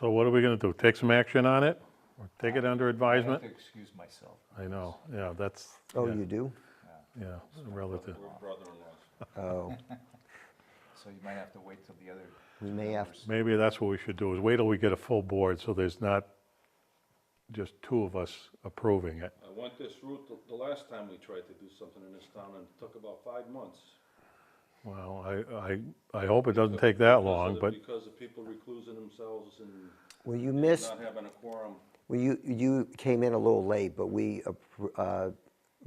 So what are we going to do? Take some action on it? Or take it under I have advisement? to excuse myself. I know, yeah, that's, Oh, yeah, you do? yeah, relative. Oh, So you might have to wait till the other. we may have, Maybe that's what we should do, is wait till we get a full board, so there's not just two of us approving it. I went this route the- the last time we tried to do something in this town, and it took about five months. Well, I, I, I hope it doesn't take that Because of long, the- but Because of people reclusing themselves and well, you missed, not having a quorum. well, you, you came in a little late, but we appro- uh,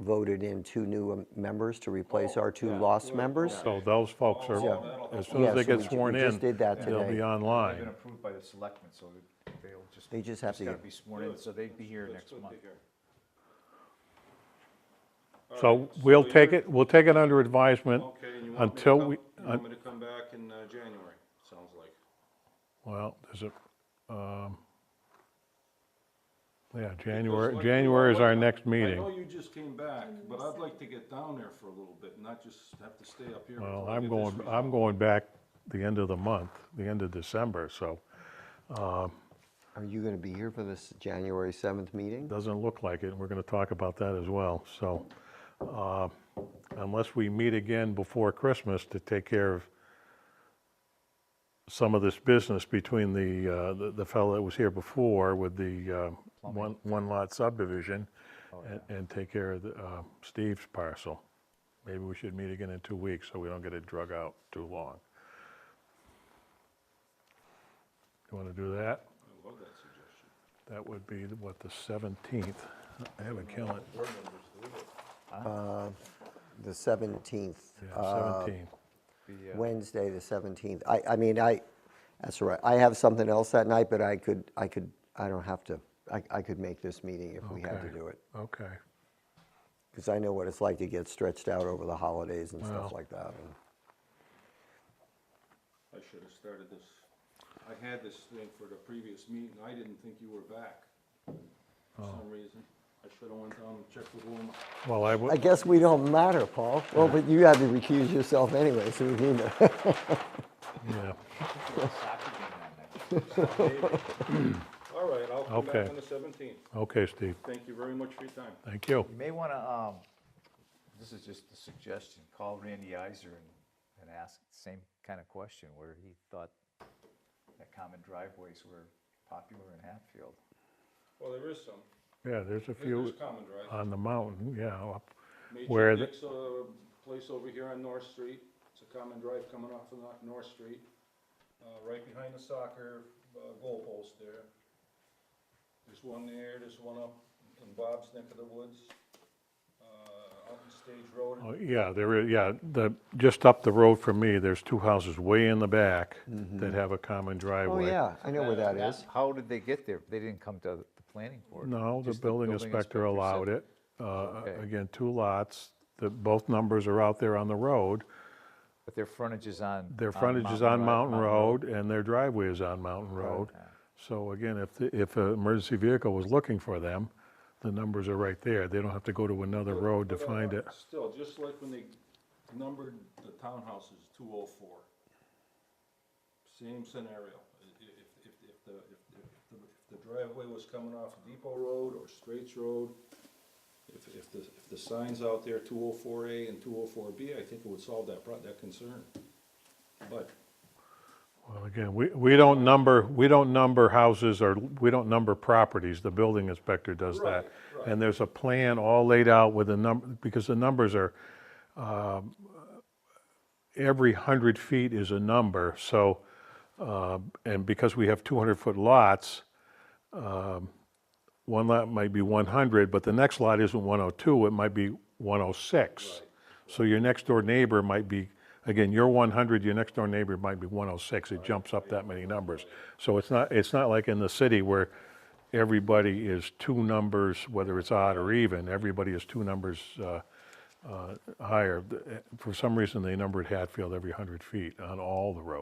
voted in two new um, members to replace our two lost members. So those folks Yeah. are, as soon as they Yeah, so get we ju- sworn we in, just did that they'll be today. They've been online. approved by the selectmen, so that they'll just. They just have to gotta get- be sworn in, so they'd be here next month. So we'll take it, we'll take it under advisement Okay, and you want me to until come, we, you un- want me to come back in uh, January, sounds like. well, there's a, um, yeah, January, Because like- January is our next I know meeting. you just came back, but I'd like to get down there for a little bit, and not just have to stay up here. Well, until I I'm get this going, resolved. I'm going back the end of the month, the end of December, so Are you going to be here for this January 7th meeting? doesn't look like it, and we're gonna talk about that as well, so. uh, Unless we meet again before Christmas to take care of some of this business between the, uh, the- the fellow that was here before with the uh, one, one lot subdivision and, and take care of the, uh, Steve's parcel. Maybe we should meet again in two weeks so we don't get it drug out too long. You wanna do that? I love that suggestion. That would be, the- what, the 17th? I have a calendar, Board members do it. The 17th, yeah, uh, 17th. The, uh, Wednesday, the 17th. I, I mean, I, that's all right. I have something else that night, but I could, I could, I don't have to, I, I could make this meeting if we had to Okay. do it. Okay, Because I know what it's like to get stretched out over the holidays and Well. stuff like that. and- I should have started this. I had this thing for the previous meeting. I didn't think you were back for Oh. some reason. I should have went down and checked with Wilma. well, I I would, guess we don't matter, Paul. Well, but you had to recuse yourself anyway, so we need to. yeah, soccer game that night. All right, I'll come Okay. back on the seventeenth. okay, Steve, Thank you very much for your time. thank you. You may want to, um, this is just a suggestion, call Randy Iser and, and ask the same kind of question where he thought that common driveways were popular in Hatfield. Well, there is some. Yeah, there's a There's few common drive. on the mountain, yeah, up where Major the, Dick's, uh, place over here on North Street. It's a common drive coming off of Nor- North Street, uh, right behind the soccer, uh, goalpost there. There's one there, there's one up in Bob's neck of the woods, uh, out in Stage Road. oh, yeah, there is, yeah, the, just up the road from me, there's two houses way in the back that have a common Oh, driveway. yeah, I know where that Now, is. How did they get there? They didn't come to the planning board? No, the Just building inspector said- allowed it. Uh, Okay. Again, two lots, the, both numbers are out there on the road. But their frontage is on. Their frontage is on Ri- Mountain Road, and their driveway is on Mountain Road. Okay. So again, if, the- if an emergency vehicle was looking for them, the numbers are right there. They don't have to go to another But- road to but, uh, find it. Still, just like when they numbered the townhouses, two oh four. Same scenario. I- i- If, if, if the, if the- if the, if the driveway was coming off Depot Road or Straits Road, if, if the, if the signs out there, two oh four A and two oh four B, I think it would solve that pro, that concern. But Well, again, we, we don't number, we don't number houses or, we don't number properties. The building inspector does that. Right, right. And there's a plan all laid out with the number, because the numbers are, um, every hundred feet is a number, so, uh, and because we have two hundred foot lots, um, one lot might be one hundred, but the next lot isn't one oh two, it might be one oh six. So your next door neighbor might be, again, you're one hundred, your next door neighbor might be one oh six, it jumps up that many numbers. So it's not, it's not like in the city where everybody is two numbers, whether it's odd or even, everybody is two numbers, uh, eh, uh, higher. The- For some reason, they numbered Hatfield every 100 feet on all the roads.